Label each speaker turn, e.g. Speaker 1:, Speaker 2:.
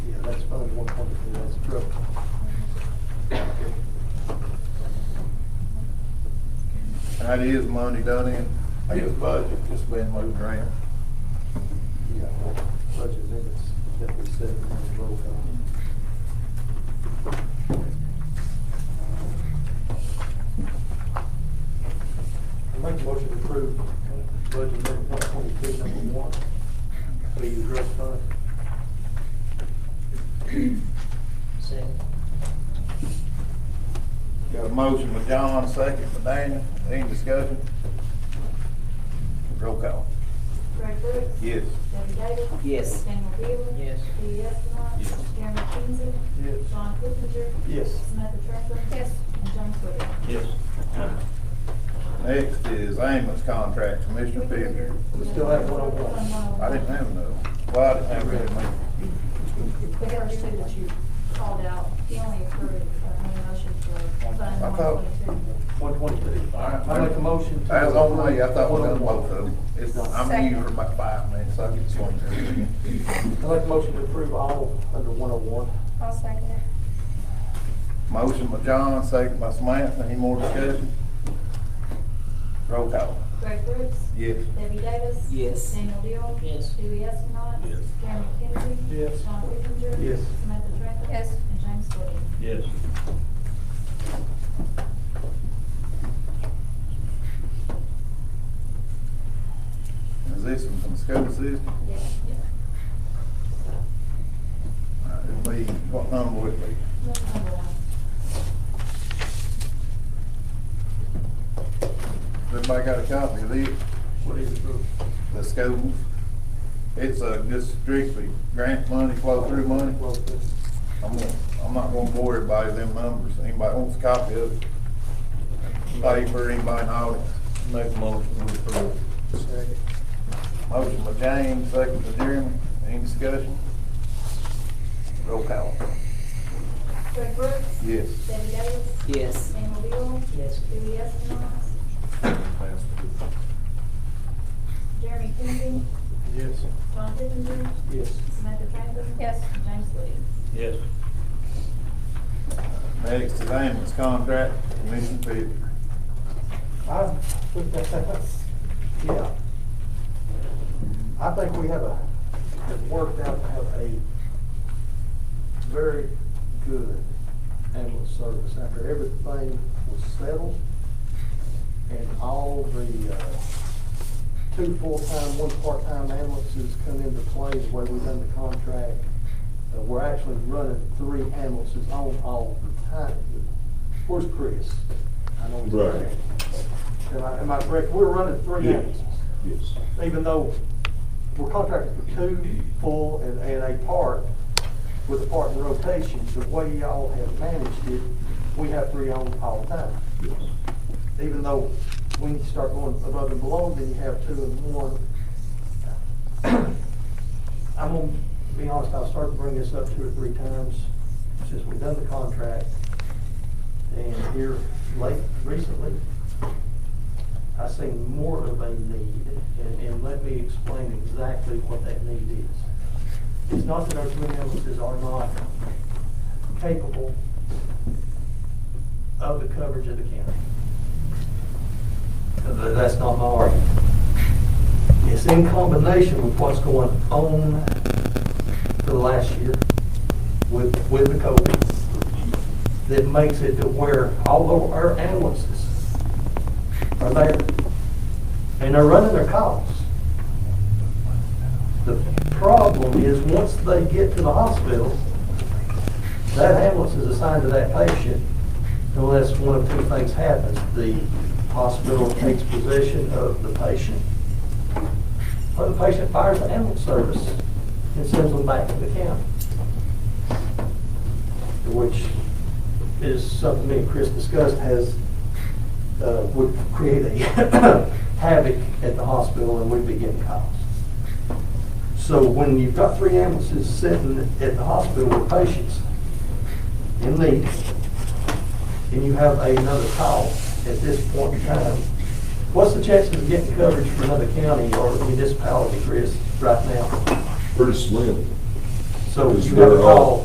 Speaker 1: That is money done in, I guess budget, it's been moved around.
Speaker 2: Yeah, budget limits that we set in the roll call. I make a motion to approve budget number one twenty-two, number one, for your drug fund.
Speaker 3: Second.
Speaker 1: Got a motion by John, second by Daniel, any discussion? Roll call.
Speaker 4: Greg Brooks.
Speaker 1: Yes.
Speaker 4: Debbie Davis.
Speaker 3: Yes.
Speaker 4: Daniel E Deal.
Speaker 3: Yes.
Speaker 4: Lee Estimov.
Speaker 1: Yes.
Speaker 4: Gary McKenzie.
Speaker 2: Yes.
Speaker 4: John Kipinger.
Speaker 2: Yes.
Speaker 4: Samantha Tronka. Yes. And James Wade.
Speaker 1: Yes. Next is ambulance contract, Commissioner Pivoy.
Speaker 2: We still have one on one.
Speaker 1: I didn't have no, well, I didn't have really much.
Speaker 4: But there were two that you called out, he only approved, uh, made a motion for
Speaker 1: I
Speaker 4: fund one
Speaker 1: thought-
Speaker 4: twenty-two.
Speaker 2: One twenty-two. I make a motion to.
Speaker 1: As only, I thought we done both of
Speaker 2: them.
Speaker 1: them. It's, I'm here for about five minutes, so I get swung.
Speaker 2: I make a motion to approve all under one oh one.
Speaker 5: I'll second it.
Speaker 1: Motion by John, second by Samantha, any more discussion? Roll call.
Speaker 4: Greg Brooks.
Speaker 1: Yes.
Speaker 4: Debbie Davis.
Speaker 3: Yes.
Speaker 4: Daniel E Deal.
Speaker 3: Yes.
Speaker 4: Dewey Estimov.
Speaker 1: Yes.
Speaker 4: Gary McKenzie.
Speaker 2: Yes.
Speaker 4: John Kipinger.
Speaker 2: Yes.
Speaker 4: Samantha Tronka.
Speaker 5: Yes.
Speaker 4: And James Wade.
Speaker 1: Yes. Is this one from the school system?
Speaker 4: Yes.
Speaker 1: Uh, It'll be, what number would it be?
Speaker 4: That's number one.
Speaker 1: Everybody got a copy of it?
Speaker 2: What is it, Bruce?
Speaker 1: the schools. It's a, just strictly grant money, flow through money.
Speaker 2: Well, this-
Speaker 1: I'm, gonna- I'm not gonna bore everybody with them numbers. Anybody wants a copy of it? Paper, anybody in the audience?
Speaker 6: Make a motion to approve.
Speaker 2: Second.
Speaker 1: Motion by James, second by Jeremy. Any discussion? Roll call.
Speaker 4: Greg Brooks.
Speaker 1: Yes.
Speaker 4: Debbie Davis.
Speaker 3: Yes.
Speaker 4: Daniel Deal.
Speaker 3: Yes.
Speaker 4: Dewey Estimov. Jeremy Kinsey.
Speaker 2: Yes.
Speaker 4: John Kipinger.
Speaker 2: Yes.
Speaker 4: Samantha Tronka.
Speaker 5: Yes.
Speaker 4: And James Wade.
Speaker 6: Yes.
Speaker 1: Next is ambulance contract, Commissioner Pivoy.
Speaker 2: I, yeah. I think we have a, have worked out to have a very good ambulance service after everything was settled. And all the, uh, two full-time, one part-time ambulances come into play the way we done the contract. Uh, we're actually running three ambulances on all the time. Where's Chris? I know he's not there.
Speaker 6: Right.
Speaker 2: Am I, am I correct? We're running three
Speaker 6: Yes.
Speaker 2: ambulances,
Speaker 6: Yes.
Speaker 2: even though we're contracted for two full and, and a part with a part in rotation. The way y'all have managed it, we have three on all the time.
Speaker 6: Yes.
Speaker 2: Even though when you start going above and below, then you have two and one. I'm gonna be honest, I'll start to bring this up two or three times since we've done the contract. And here late, recently, I seen more of a need, and, and let me explain exactly what that need is. It's not that our twin ambulances are not capable of the coverage of the county. Th- That's not my argument. It's in combination with what's going on for the last year with, with the COVID that makes it to where all of our ambulances are there. And they're running their calls. The problem is, once they get to the hospital, that ambulance is assigned to that patient unless one of two things happens. The hospital takes possession of the patient, or the patient fires the ambulance service and sends them back to the county. Which is something me and Chris discussed, has, uh, would create a havoc at the hospital and we'd be getting calls. So when you've got three ambulances sitting at the hospital with patients in need, and you have another call at this point in time, what's the chances of getting coverage from another county or municipality, Chris, right now?
Speaker 6: Pretty slim.
Speaker 2: So
Speaker 6: It's
Speaker 2: you have a
Speaker 6: very odd.
Speaker 2: call